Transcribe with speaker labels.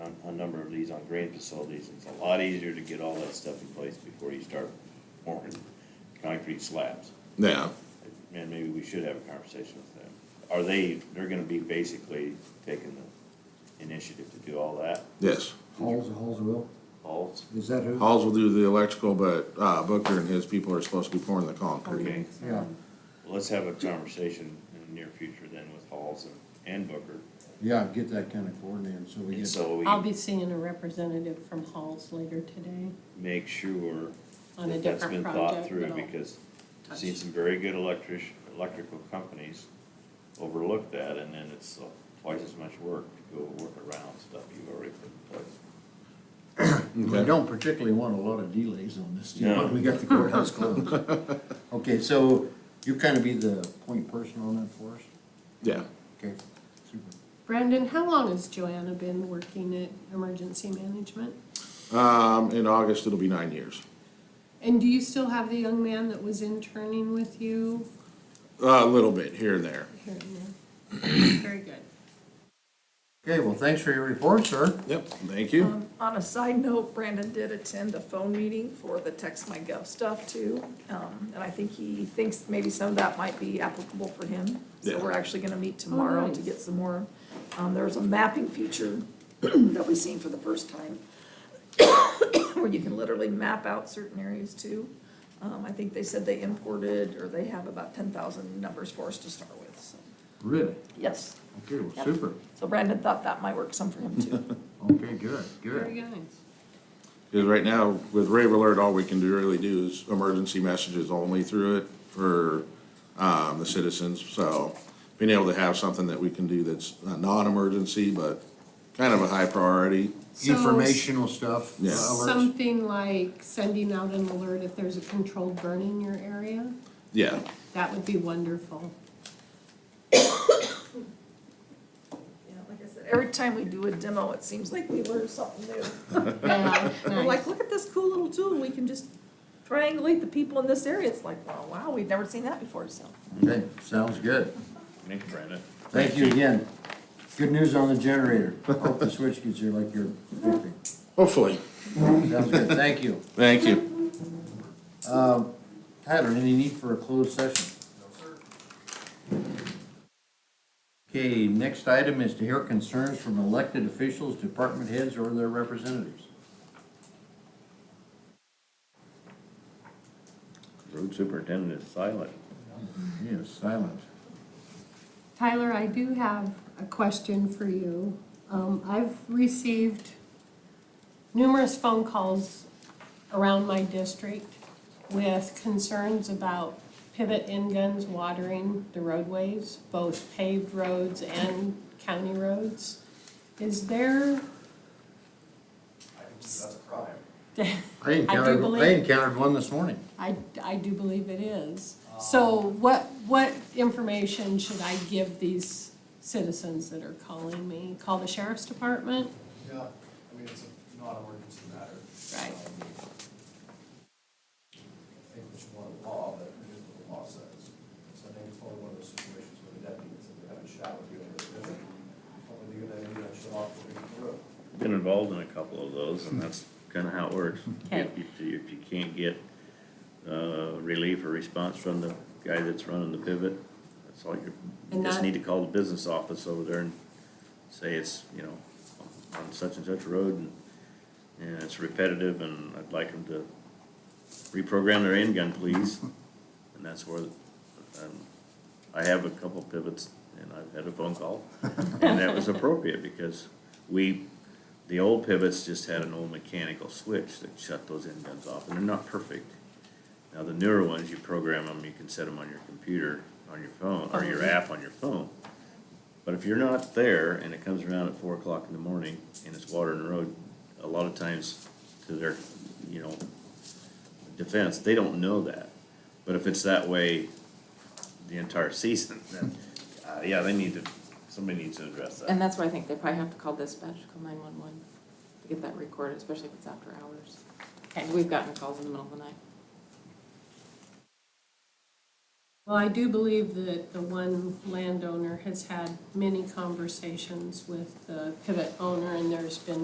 Speaker 1: number of these on grain facilities, it's a lot easier to get all that stuff in place before you start pouring concrete slabs.
Speaker 2: Yeah,
Speaker 1: And maybe we should have a conversation with them. Are they, they're gonna be basically taking the initiative to do all that,
Speaker 2: yes.
Speaker 3: Halls, Halls will,
Speaker 1: all?
Speaker 3: is that who?
Speaker 2: Halls will do the electrical, but, uh, Booker and his people are supposed to be pouring the concrete.
Speaker 1: Okay.
Speaker 3: Yeah,
Speaker 1: Let's have a conversation in the near future then with Halls and- and Booker.
Speaker 3: yeah, get that kind of coordinated, so we
Speaker 1: And
Speaker 3: get,
Speaker 1: so
Speaker 4: I'll
Speaker 1: we
Speaker 4: be seeing a representative from Halls later today
Speaker 1: make sure
Speaker 4: on a
Speaker 1: that that's been
Speaker 4: different
Speaker 1: thought
Speaker 4: project.
Speaker 1: through
Speaker 4: but I'll-
Speaker 1: because I've seen
Speaker 4: touch.
Speaker 1: some very good electric, electrical companies overlook that and then it's uh, twice as much work to go work around stuff you've already put in place.
Speaker 3: we don't particularly want a lot of delays on this, you
Speaker 1: No.
Speaker 3: know, we got the courthouse closed. Okay, so you kind of be the point person on that for us,
Speaker 2: Yeah,
Speaker 3: okay, super.
Speaker 4: Brandon, how long has Joanna been working at emergency management?
Speaker 2: um, in August, it'll be nine years.
Speaker 4: And do you still have the young man that was interning with you?
Speaker 2: A little bit here and there.
Speaker 4: Here and there. Very good.
Speaker 3: Okay, well, thanks for your report, sir.
Speaker 2: Yep, thank you.
Speaker 5: Um, On a side note, Brandon did attend a phone meeting for the Text My Gov stuff too. Um, and I think he thinks maybe some of that might be applicable for him. So
Speaker 2: Yeah.
Speaker 5: we're actually gonna meet tomorrow to
Speaker 4: nice.
Speaker 5: get some more. Um, there's a mapping feature that we've seen for the first time where you can literally map out certain areas too. Um, I think they said they imported, or they have about ten thousand numbers for us to start with, so,
Speaker 3: Really?
Speaker 5: yes.
Speaker 3: Okay, well,
Speaker 5: Yep.
Speaker 3: super,
Speaker 5: So Brandon thought that might work some for him too.
Speaker 3: okay, good,
Speaker 4: Very
Speaker 3: good.
Speaker 4: nice.
Speaker 2: Because right now, with Rave Alert, all we can do really do is emergency messages only through it for, um, the citizens. So being able to have something that we can do that's a non-emergency, but kind of a high priority.
Speaker 4: So-
Speaker 3: Informational stuff, uh,
Speaker 2: Yeah.
Speaker 3: alerts,
Speaker 4: Something like sending out an alert if there's a controlled burn in your area,
Speaker 2: Yeah,
Speaker 4: that would be wonderful.
Speaker 5: Yeah, like I said, every time we do a demo, it seems like we learn something new.
Speaker 4: Yeah,
Speaker 5: We're like,
Speaker 4: nice.
Speaker 5: look at this cool little tool, we can just triangulate the people in this area, it's like, wow, wow, we've never seen that before, so.
Speaker 3: okay, sounds good.
Speaker 1: Thanks, Brandon.
Speaker 3: Thank you again. Good news on the generator, hope the switch gets here like you're hoping.
Speaker 2: hopefully.
Speaker 3: Sounds good, thank you.
Speaker 2: Thank you.
Speaker 3: Tyler, any need for a closed session? No, sir. Okay, next item is to hear concerns from elected officials, department heads, or their representatives.
Speaker 1: Road superintendent is silent.
Speaker 3: He is silent.
Speaker 4: Tyler, I do have a question for you. Um, I've received numerous phone calls around my district with concerns about pivot end guns watering the roadways, both paved roads and county roads. Is there,
Speaker 3: I
Speaker 4: encountered- I
Speaker 3: encountered, I
Speaker 4: believe-
Speaker 3: encountered one this morning.
Speaker 4: I, I do believe it is. So what, what information should I give these citizens that are calling me? Call the sheriff's department?
Speaker 6: Yeah, I mean, it's a non-emergency matter.
Speaker 4: Right.
Speaker 6: Um, I think it's one of the law, but it is what the law says. So I think it's probably one of those situations where the deputy said they're having a shower here, and it's probably a good idea to shut off the road.
Speaker 1: Been involved in a couple of those, and that's kinda how it works.
Speaker 4: Okay.
Speaker 1: If you, if you can't get, uh, relief or response from the guy that's running the pivot, that's all you, you
Speaker 4: And
Speaker 1: just
Speaker 4: that-
Speaker 1: need to call the business office over there and say it's, you know, on such and such road, and, and it's repetitive, and I'd like them to reprogram their end gun, please. And that's where, um, I have a couple pivots, and I've had a phone call, and that was appropriate, because we, the old pivots just had an old mechanical switch that shut those end guns off, and they're not perfect. Now, the newer ones, you program them, you can set them on your computer, on your phone, or your app on your phone. But if you're not there and it comes around at four o'clock in the morning and it's water in the road, a lot of times to their, you know, defense, they don't know that. But if it's that way the entire season, then, uh, yeah, they need to, somebody needs to address that.
Speaker 7: And that's why I think they probably have to call dispatch, call nine-one-one, to get that recorded, especially if it's after hours. And we've gotten calls in the middle of the night.
Speaker 4: Well, I do believe that the one landowner has had many conversations with the pivot owner, and there's been